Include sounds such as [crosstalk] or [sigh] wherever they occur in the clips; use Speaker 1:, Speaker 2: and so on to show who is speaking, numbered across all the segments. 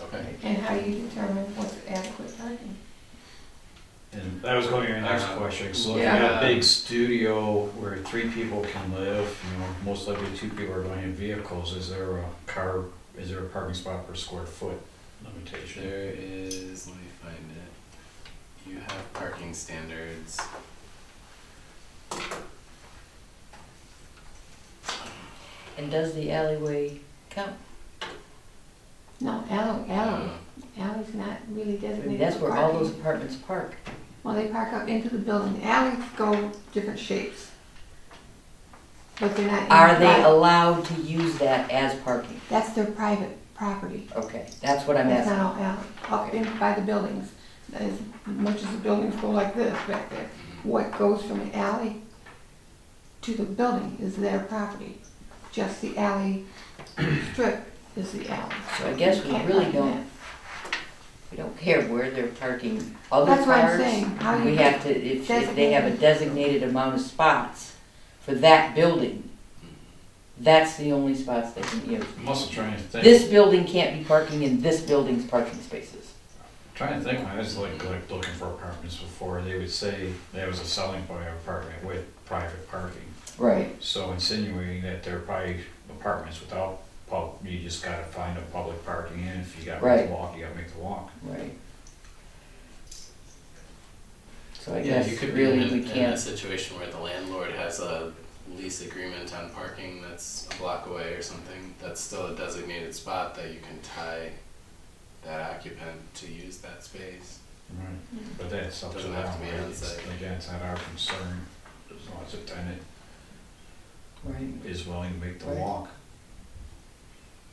Speaker 1: okay.
Speaker 2: And how you determine what's adequate parking?
Speaker 3: And that was going to be your next
Speaker 1: Uh,
Speaker 3: question. So if you
Speaker 1: yeah.
Speaker 3: got a big studio where three people can live, you know, most likely two people are going to have vehicles. Is there a car? Is there a parking spot per square foot limitation?
Speaker 1: There is, let me find it. You have parking standards.
Speaker 4: And does the alleyway count?
Speaker 2: No, alley, alley,
Speaker 1: Uh,
Speaker 2: alley's not really
Speaker 4: I mean,
Speaker 2: designated
Speaker 4: that's
Speaker 2: for
Speaker 4: where all those
Speaker 2: parking.
Speaker 4: apartments park.
Speaker 2: Well, they park out into the building, alleys go different shapes. But they're not. in
Speaker 4: Are they
Speaker 2: private-
Speaker 4: allowed to use that as parking?
Speaker 2: That's their private property.
Speaker 4: Okay, that's what I'm
Speaker 2: That's not
Speaker 4: asking.
Speaker 2: all alley, up in by the buildings. As much as the buildings go like this back there, what goes from the alley to the building is their property. Just the alley strip is the alley.
Speaker 4: So I guess we
Speaker 2: Can't
Speaker 4: really
Speaker 2: park in that.
Speaker 4: don't, we don't care where they're parking other cars.
Speaker 2: That's what I'm saying. How do
Speaker 4: We
Speaker 2: you
Speaker 4: have to, if, if they have a
Speaker 2: designate-
Speaker 4: designated amount of spots for that building, that's the only spots they can use.
Speaker 3: I'm also trying to think.
Speaker 4: This building can't be parking in this building's parking spaces.
Speaker 3: Trying to think, when I was like, like looking for apartments before, they would say that was a selling point of apartment with private parking.
Speaker 4: Right.
Speaker 3: So insinuating that there are probably apartments without pub, you just gotta find a public parking and if you gotta make
Speaker 4: Right.
Speaker 3: the walk, you gotta make the walk.
Speaker 4: Right. So I
Speaker 1: Yeah,
Speaker 4: guess
Speaker 1: you could be in,
Speaker 4: really we
Speaker 1: a- in a
Speaker 4: can't,
Speaker 1: situation where the landlord has a lease agreement on parking that's a block away or something. That's still a designated spot that you can tie that occupant to use that space.
Speaker 3: Right. But that's up to
Speaker 1: Doesn't
Speaker 3: them,
Speaker 1: have to be
Speaker 3: right? It's-
Speaker 1: outside.
Speaker 3: Again, it's not our concern, as long as the tenant
Speaker 4: right,
Speaker 3: is willing to make the
Speaker 4: Right.
Speaker 3: walk.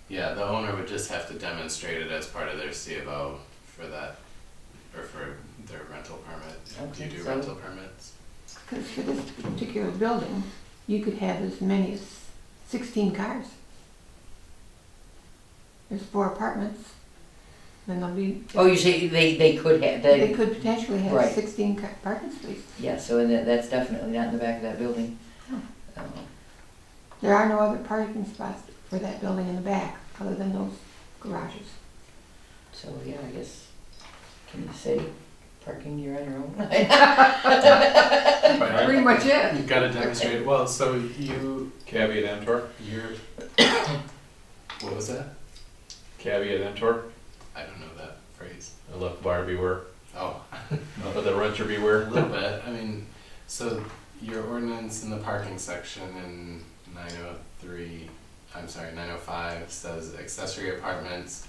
Speaker 1: Yeah, the owner would just have to demonstrate it as part of their C of O for that, or for their rental permit. Do
Speaker 4: Okay,
Speaker 1: you do
Speaker 4: so-
Speaker 1: rental
Speaker 4: [laughs]
Speaker 1: permits?
Speaker 2: Because for this particular building, you could have as many as sixteen cars. There's four apartments, then there'll be.
Speaker 4: oh, you say they, they could have,
Speaker 2: They
Speaker 4: they,
Speaker 2: could potentially have
Speaker 4: Right.
Speaker 2: sixteen ca- parking spaces.
Speaker 4: yeah, so and that, that's definitely not in the back of that building.
Speaker 2: No.
Speaker 4: Um,
Speaker 2: There are no other parking spots for that building in the back, other than those garages.
Speaker 4: So, yeah, I guess, can you say parking, you're on your [laughs] own?
Speaker 1: Right.
Speaker 2: much it.
Speaker 1: You gotta demonstrate, well, so you,
Speaker 5: Caveat emptor.
Speaker 1: you're, what was that?
Speaker 5: Caveat emptor.
Speaker 1: I don't know that phrase.
Speaker 5: I left buyer beware.
Speaker 1: Oh,
Speaker 5: Let the renter
Speaker 1: a
Speaker 5: beware.
Speaker 1: little bit, I mean, so your ordinance in the parking section in nine oh three, I'm sorry, nine oh five says accessory apartments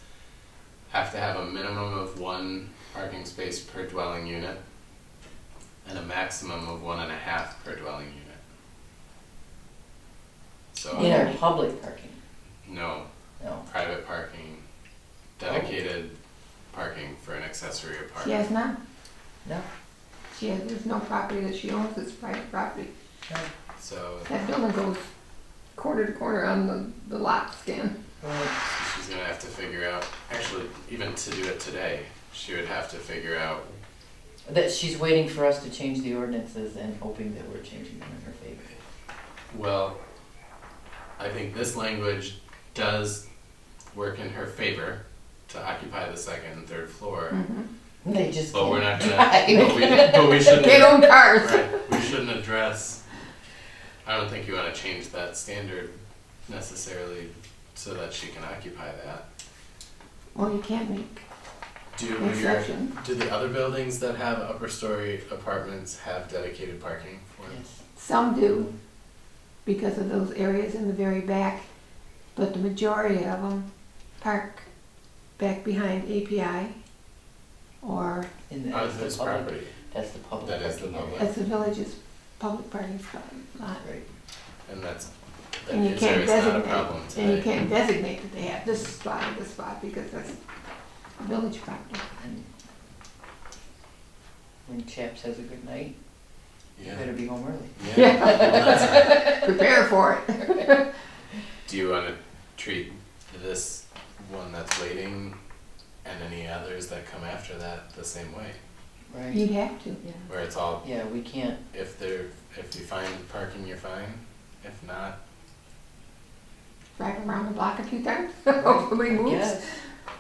Speaker 1: have to have a minimum of one parking space per dwelling unit and a maximum of one and a half per dwelling unit. So.
Speaker 4: In our public parking,
Speaker 1: No,
Speaker 4: no.
Speaker 1: private parking, dedicated parking for an accessory
Speaker 2: She
Speaker 1: apartment.
Speaker 2: has none.
Speaker 4: No.
Speaker 2: She has, there's no property that she owns, it's private property.
Speaker 1: So
Speaker 2: That building goes corner to corner on the, the lot scan.
Speaker 4: Right.
Speaker 1: she's gonna have to figure out, actually, even to do it today, she would have to figure out,
Speaker 4: That, she's waiting for us to change the ordinances and hoping that we're changing them in her favor.
Speaker 1: well, I think this language does work in her favor to occupy the second and third floor,
Speaker 4: They just
Speaker 1: but we're
Speaker 4: can't
Speaker 1: not
Speaker 4: [laughs]
Speaker 1: gonna,
Speaker 4: drive.
Speaker 1: but we, but we shouldn't.
Speaker 2: They own cars.
Speaker 1: Right, we shouldn't address, I don't think you wanna change that standard necessarily so that she can occupy that.
Speaker 2: Well, you can't make
Speaker 1: Do your,
Speaker 2: exceptions.
Speaker 1: do the other buildings that have upper story apartments have dedicated parking for them?
Speaker 4: Yes.
Speaker 2: Some do, because of those areas in the very back, but the majority of them park back behind API or
Speaker 4: In the,
Speaker 1: On
Speaker 4: that's
Speaker 1: this
Speaker 4: the public,
Speaker 1: property,
Speaker 4: that's the public.
Speaker 1: That is the
Speaker 4: parking area.
Speaker 1: public.
Speaker 2: as the village's public parking spot lot.
Speaker 4: Right.
Speaker 1: and that's, that
Speaker 2: And you
Speaker 1: is there
Speaker 2: can't
Speaker 1: is not a problem
Speaker 2: designate, and you
Speaker 1: today.
Speaker 2: can't designate that they have this spot or this spot, because that's village
Speaker 4: [laughs]
Speaker 2: property.
Speaker 4: And When Chaps has a good night, you
Speaker 1: Yeah,
Speaker 4: better be home early.
Speaker 1: yeah, that's right.
Speaker 2: Prepare for it.
Speaker 1: Do you wanna treat this one that's waiting and any others that come after that the same way?
Speaker 4: Right.
Speaker 2: You'd have to.
Speaker 4: Yeah.
Speaker 1: Where it's all,
Speaker 4: Yeah, we can't,
Speaker 1: if they're, if you find parking, you're fine, if not,
Speaker 4: [laughs]
Speaker 2: Drive around the block a few times, hopefully
Speaker 4: I
Speaker 2: moves.
Speaker 4: guess.